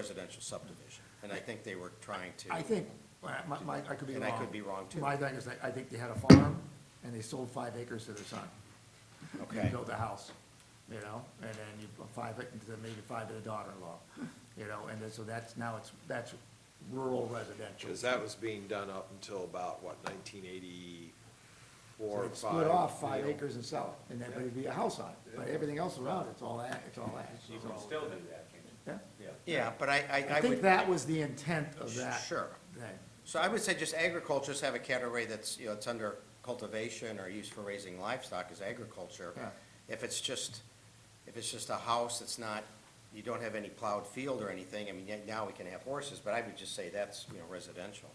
residential subdivision, and I think they were trying to. I think, my, my- my, I could be wrong. And I could be wrong, too. My thing is, I, I think they had a farm, and they sold five acres to their son. Okay. And built a house, you know, and then you, put five, ac- to the- maybe five to the daughter-in-law, you know, and then, so that's, now it's, that's rural residential. Because that was being done up until about, what, nineteen eighty-four, So five? they'd Split off five you know. acres and sell it, and then it'd be a house on it, but everything else around, it's all ag, it's all ag. You can still do that, can't you? Yeah. Yeah, but I, I, I I think would, that was the intent of that. Sure. thing. so I would say just agriculture, just have a category that's, you know, it's under cultivation or used for raising livestock is agriculture. Yeah. If it's just, if it's just a house, it's not, you don't have any plowed field or anything, I mean, yet now we can have horses, but I would just say that's, you know, residential.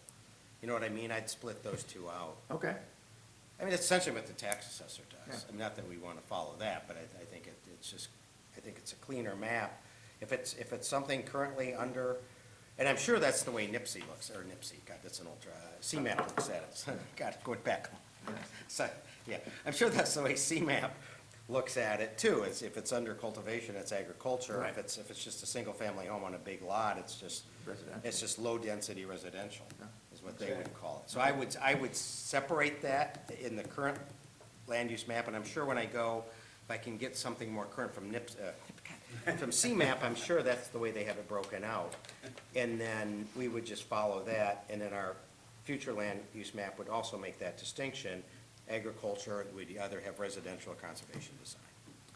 You know what I mean? I'd split those two out. Okay, I mean, that's essentially what the tax assessor does. Yeah. And Not that we want to follow that, but I, I think it, it's just, I think it's a cleaner map. If it's, if it's something currently under, and I'm sure that's the way NIPSI looks, or NIPSI, God, that's an ultra, uh, CMAP looks at it. God, going back. So, yeah, I'm sure that's the way CMAP looks at it too, is if it's under cultivation, it's agriculture. Right. If it's, if it's just a single-family home on a big lot, it's just, Residential. it's just low-density residential, Yeah. is what they would call it. So I would, I would separate that in the current land use map, and I'm sure when I go, if I can get something more current from NIPS, uh, from CMAP, I'm sure that's the way they have it broken out. And then we would just follow that, and then our future land use map would also make that distinction. Agriculture, we'd either have residential or conservation design.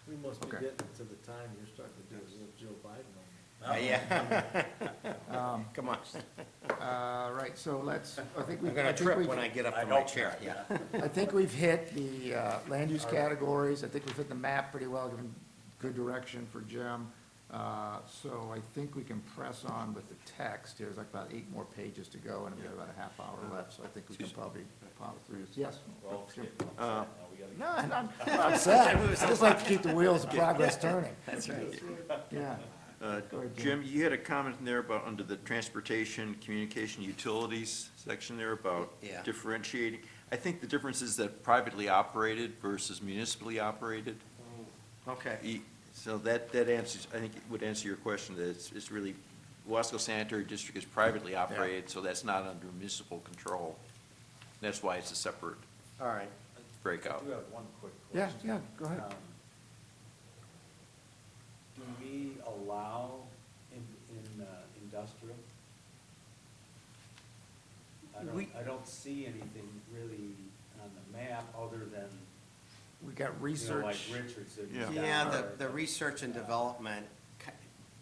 We must be Okay. getting to the time you're starting to do a little Joe Biden on me. Uh, Yeah. Come on, Um, uh, right, so let's, I think we. I'm gonna I think trip we've- when I get up I from my don't chair, care. yeah. I think we've hit the uh, land use categories, I think we've hit the map pretty well, given good direction for Jim. Uh, So I think we can press on with the text, there's like about eight more pages to go, and we've got about a half hour left, so I think we can probably plow through this. Yes? We're all Jim? getting upset now. We gotta- No, I'm not I'm not upset, I just like to keep the wheels of progress turning. That's right. Yeah. Uh, Go ahead, Jim. Jim, you had a comment in there about, under the transportation, communication, utilities section there about Yeah. differentiating. I think the difference is that privately operated versus municipally operated. Okay. E- So that, that answers, I think it would answer your question, that it's, it's really, Wasco Sanitary District is privately operated, so that's not under municipal control. That's why it's a separate All right. breakout. I do have one quick Yeah, question. yeah, go ahead. Um, Do we allow in, in uh, industrial? I We- don't, I don't see anything really on the map other than, We got you know, like research. Richards. that was Yeah. down Yeah, the, there. the research and development ki-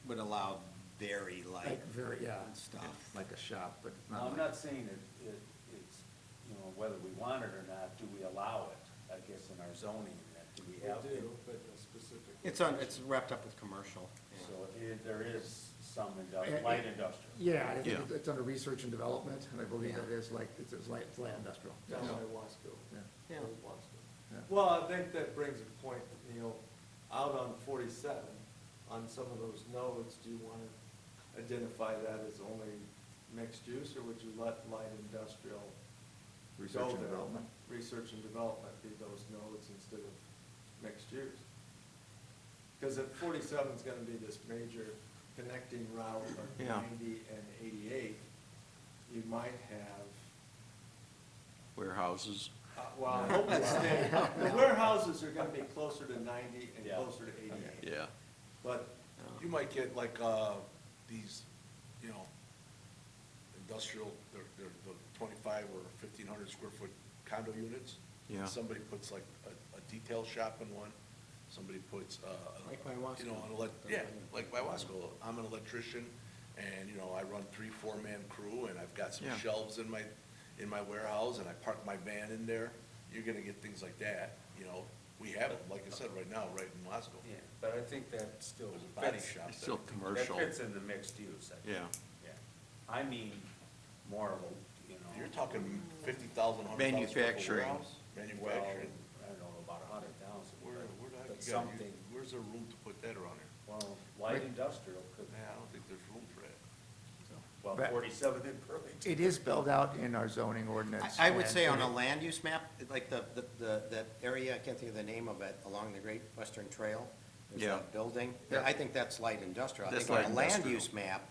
would allow very light Like, very, yeah, stuff. like a shop, but Now, I'm not not like. saying it, it, it's, you know, whether we want it or not, do we allow it, I guess, in our zoning, that do we We have? do, but a specific. It's on, it's wrapped up with commercial. So it, there is some Yeah, industrial, yeah. light industrial. Yeah, I think Yeah. it's- it's under research and development, and I believe Yeah. it is like, it's, it's light, it's light industrial. Down Yeah. by Wasco. Yeah. Yeah. Old Wasco. Yeah. Well, I think that brings a point, you know, out on forty-seven, on some of those nodes, do you wanna identify that as only mixed use, or would you let light industrial go Research and there? development. Research and development be those nodes instead of mixed use? Cause at forty-seven's gonna be this major connecting route of Yeah. ninety and eighty-eight, you might have Warehouses. uh, Well, I hope it stays. The warehouses are gonna be closer to ninety and Yeah. closer to eighty-eight. Yeah. But You might get like, uh, these, you know, industrial, they're, they're the twenty-five or fifteen hundred square foot condo units. Yeah. Somebody puts like a, a detail shop in one, somebody puts, uh. Like my You know, Wasco. an elec, yeah, like my Wasco, I'm an electrician, and, you know, I run three, four-man crew, and I've got some Yeah. shelves in my, in my warehouse, and I park my van in there. You're gonna get things like that, you know, we have them, like I said, right now, right in Wasco. Yeah, but I think that still There's a body fits. shop It's still there. That commercial. fits in the mixed use. I think. Yeah. Yeah. I mean, more of a, you know. You're talking fifty thousand, hundred thousand. Manufacturing. Well, Manufacturing. I don't know, about a hundred thousand. Where, where do I, But you got, something, where's there room to put that around here? well, light industrial could, Man, I don't think there's room for that. well, But- forty-seven in Burlington. It is spelled out in our zoning ordinance. I, I would and say on it- a land use map, like the, the, the, that area, I can't think of the name of it, along the Great Western Trail. There's Yeah. that building. Yeah. I think that's light industrial. I That's think on light a land industrial. use map,